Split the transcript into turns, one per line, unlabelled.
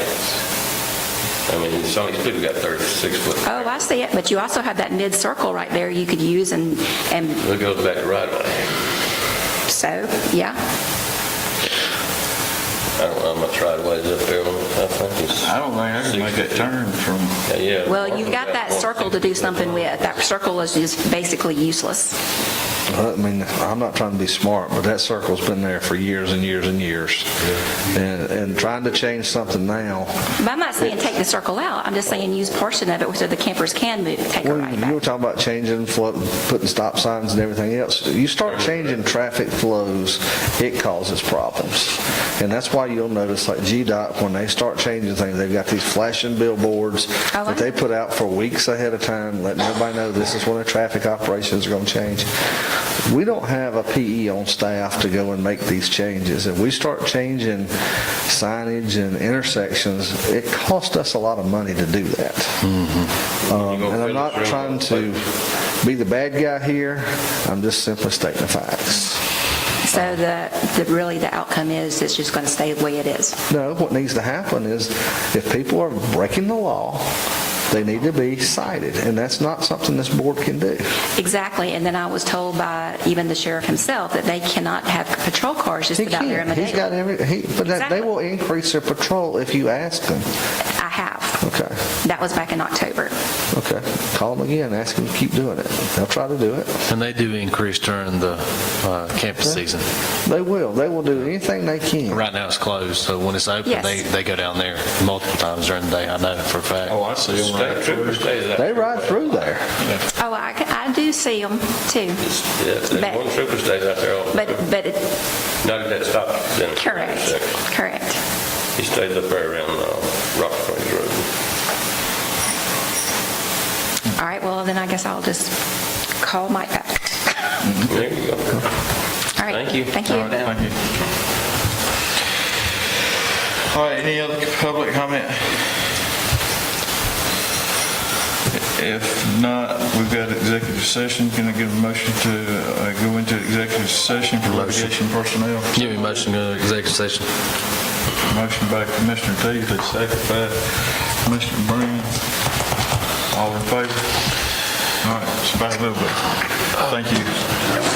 sides. I mean, it's only, we've got 36 foot.
Oh, I see it, but you also have that mid-circle right there you could use and, and
It goes back to right away.
so, yeah.
I don't know how much right away is up there. I think it's.
I don't think I can make that turn from,
Yeah, Yeah.
Well, you've got that circle to do something with. That circle is just basically useless.
I mean, I'm not trying to be smart, but that circle's been there for years and years and years. And, and trying to change something now,
But I'm not saying take the circle out, I'm just saying use portion of it so the campers can move, take a
when
right
you were
back.
talking about changing, flow, putting stop signs and everything else, you start changing traffic flows, it causes problems. And that's why you'll notice like GDOT, when they start changing things, they've got these flashing billboards
Oh, I
that they
know.
put out for weeks ahead of time, letting everybody know this is when the traffic operations are going to change. We don't have a PE on staff to go and make these changes. If we start changing signage and intersections, it costs us a lot of money to do that. Um,
You gonna
And I'm
fill
not
this room
trying
up,
to be the bad guy here, I'm just simply stating the facts.
So the, the, really the outcome is, it's just going to stay the way it is.
No, what needs to happen is if people are breaking the law, they need to be cited, and that's not something this board can do.
Exactly, and then I was told by even the sheriff himself that they cannot have patrol cars just
He
about there in
can't. He's got
Medina.
every, he, but that-
Exactly.
they will increase their patrol if you ask them.
I have.
Okay,
That was back in October.
okay. Call them again, ask them to keep doing it. They'll try to do it.
And they do increase during the uh, campus season.
They will. They will do anything they can.
Right now it's closed, so when it's open,
Yes.
they, they go down there multiple times during the day, I know for a fact.
oh, I see them
State
right
trooper
through.
stays out.
They ride through there.
Oh, I, ca- I do see them too,
Yeah,
But-
there's one trooper stays out there all the
but,
time.
but, it-
Not at that stop. sign.
correct, correct.
He stays up there around uh, Rock Springs Road.
All right, well, then I guess I'll just call Mike back.
There you go.
All right.
Thank you.
Thank
All right,
you.
thank you. All right, any other public comment? If not, we've got executive session. Can I get a motion to uh, go into executive session for litigation personnel?
Give me a motion to go to executive session.
Motion by Commissioner Teasley, second by Commissioner Brown. All in favor? All right, it's about a little bit. Thank you.